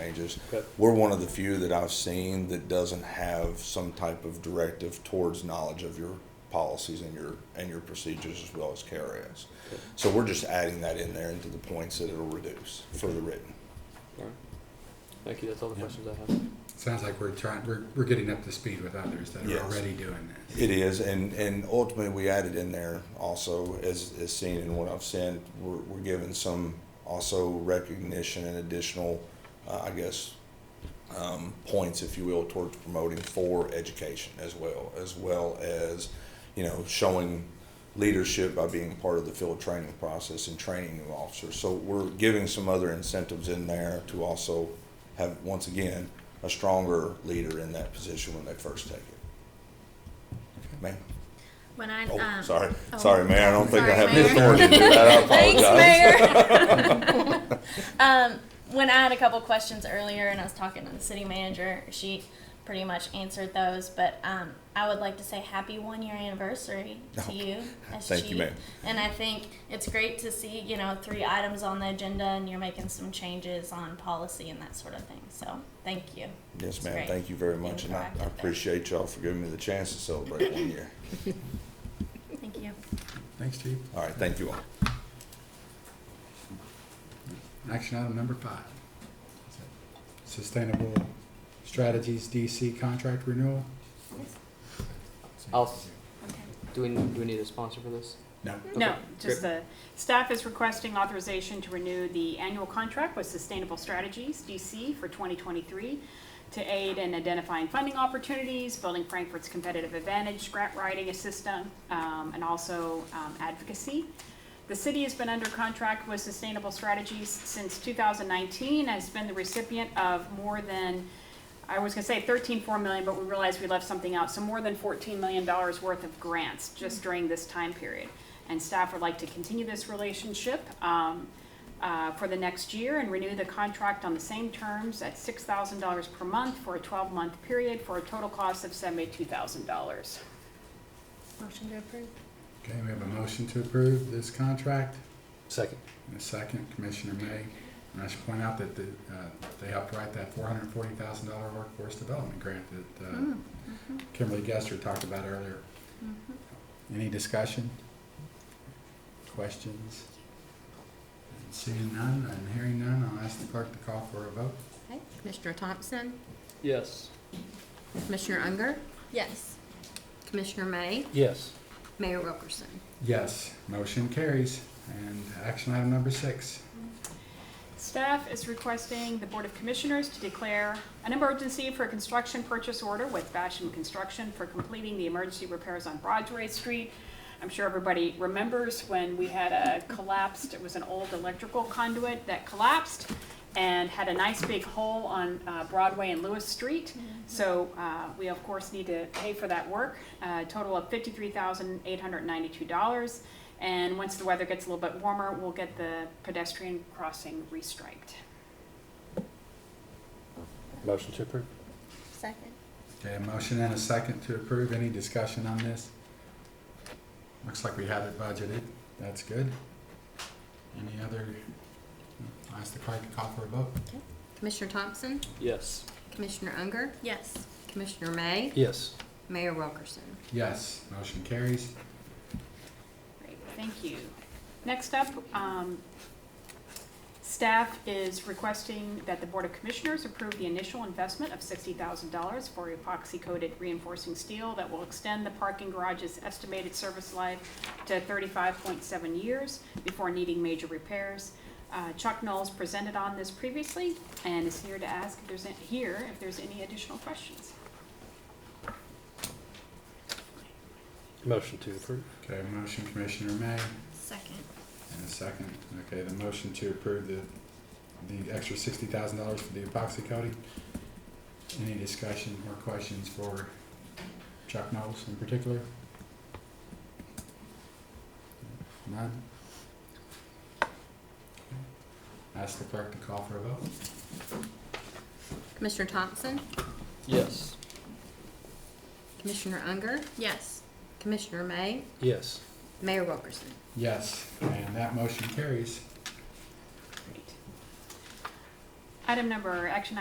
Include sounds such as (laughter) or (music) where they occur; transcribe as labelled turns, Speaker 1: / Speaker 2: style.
Speaker 1: changes.
Speaker 2: Okay.
Speaker 1: We're one of the few that I've seen that doesn't have some type of directive towards knowledge of your policies and your, and your procedures as well as KRS. So we're just adding that in there into the points that it'll reduce for the written.
Speaker 2: All right. Thank you. That's all the
Speaker 1: Yeah.
Speaker 2: questions I have.
Speaker 3: Sounds like we're trying, we're, we're getting up to speed with others that
Speaker 1: Yes.
Speaker 3: are already doing this.
Speaker 1: It is, and, and ultimately, we added in there also, as, as seen in what I've sent, we're, we're given some also recognition and additional, uh, I guess, um, points, if you will, towards promoting for education as well, as well as, you know, showing leadership by being part of the field training process and training new officers. So we're giving some other incentives in there to also have, once again, a stronger leader in that position when they first take it. Ma'am?
Speaker 4: When I
Speaker 1: Oh,
Speaker 4: um,
Speaker 1: sorry,
Speaker 4: oh.
Speaker 1: sorry, Mayor. I don't think I
Speaker 4: Sorry,
Speaker 1: have the
Speaker 4: Mayor.
Speaker 1: authority to do
Speaker 4: (laughs)
Speaker 1: that. I apologize.
Speaker 4: Thanks, (laughs) Mayor. um, when I had a couple questions earlier and I was talking to the city manager, she pretty much answered those. But um, I would like to say happy one year anniversary
Speaker 1: Oh,
Speaker 4: to you as
Speaker 1: thank you,
Speaker 4: chief.
Speaker 1: ma'am.
Speaker 4: And I think it's great to see you know three items on the agenda and you're making some changes on policy and that sort of thing. So thank you.
Speaker 1: Yes,
Speaker 4: It's
Speaker 1: ma'am.
Speaker 4: great.
Speaker 1: Thank you very much, and I, I appreciate y'all for giving me the chance to celebrate one year.
Speaker 4: Thank you.
Speaker 3: Thanks, Chief.
Speaker 1: All right, thank you all.
Speaker 3: Action item number five. Sustainable Strategies DC contract renewal.
Speaker 2: I'll, s- do, we, do we need a sponsor for this?
Speaker 3: No.
Speaker 5: No,
Speaker 2: Okay,
Speaker 5: just the, staff is requesting authorization to renew the annual contract with Sustainable Strategies DC for 2023 to aid in identifying funding opportunities, building Frankfurt's competitive advantage, grant writing assistance, um, and also um, advocacy. The city has been under contract with Sustainable Strategies since 2019, has been the recipient of more than I was gonna say thirteen four million, but we realized we left something out, so more than fourteen million dollars worth of grants just during this time period. And staff would like to continue this relationship, um, uh, for the next year and renew the contract on the same terms at six thousand dollars per month for a twelve-month period for a total cost of seventy-two thousand dollars.
Speaker 4: Motion to approve.
Speaker 3: Okay, we have a motion to approve this contract.
Speaker 2: Second.
Speaker 3: And a second, Commissioner May. And I should point out that the, uh, they helped write that four hundred forty thousand dollar workforce development grant that, uh,
Speaker 4: Mm-hmm. Hmm.
Speaker 3: Kimberly Gester talked about earlier.
Speaker 4: Mm-hmm.
Speaker 3: Any discussion? Questions? And Seeing none and hearing none, I'll ask the clerk to call for a vote.
Speaker 6: Okay, Commissioner Thompson,
Speaker 2: Yes.
Speaker 6: Commissioner Unger,
Speaker 4: Yes.
Speaker 6: Commissioner May,
Speaker 2: Yes.
Speaker 6: Mayor Wilkerson.
Speaker 3: Yes, motion carries. And action item number six.
Speaker 5: Staff is requesting the Board of Commissioners to declare an emergency for a construction purchase order with Basham Construction for completing the emergency repairs on Broadway Street. I'm sure everybody remembers when we had a collapsed, it was an old electrical conduit that collapsed and had a nice big hole on uh, Broadway and Lewis Street. So uh, we, of course, need to pay for that work, a total of $53,892. And once the weather gets a little bit warmer, we'll get the pedestrian crossing restriped.
Speaker 2: Motion to approve.
Speaker 4: Second.
Speaker 3: Okay, a motion and a second to approve. Any discussion on this? Looks like we have it budgeted. That's good. Any other? I'll Ask the clerk to call for a vote.
Speaker 6: Commissioner Thompson,
Speaker 2: Yes.
Speaker 6: Commissioner Unger,
Speaker 4: Yes.
Speaker 6: Commissioner May,
Speaker 2: Yes.
Speaker 6: Mayor Wilkerson.
Speaker 3: Yes, motion carries.
Speaker 5: Great, thank you. Next up, um, staff is requesting that the Board of Commissioners approve the initial investment of sixty thousand dollars for epoxy-coated reinforcing steel that will extend the parking garage's estimated service life to thirty-five point seven years before needing major repairs. Uh, Chuck Knowles presented on this previously and is here to ask if there's, a- here, if there's any additional questions.
Speaker 2: Motion to approve.
Speaker 3: Okay, motion Commissioner May
Speaker 4: Second.
Speaker 3: and a second. Okay, the motion to approve the, the extra sixty thousand dollars for the epoxy coating. Any discussion or questions for Chuck Knowles in particular? None? Ask the clerk to call for a vote.
Speaker 6: Commissioner Thompson,
Speaker 2: Yes.
Speaker 6: Commissioner Unger,
Speaker 4: Yes.
Speaker 6: Commissioner May,
Speaker 2: Yes.
Speaker 6: Mayor Wilkerson.
Speaker 3: Yes, and that motion carries.
Speaker 5: Great. Item number, action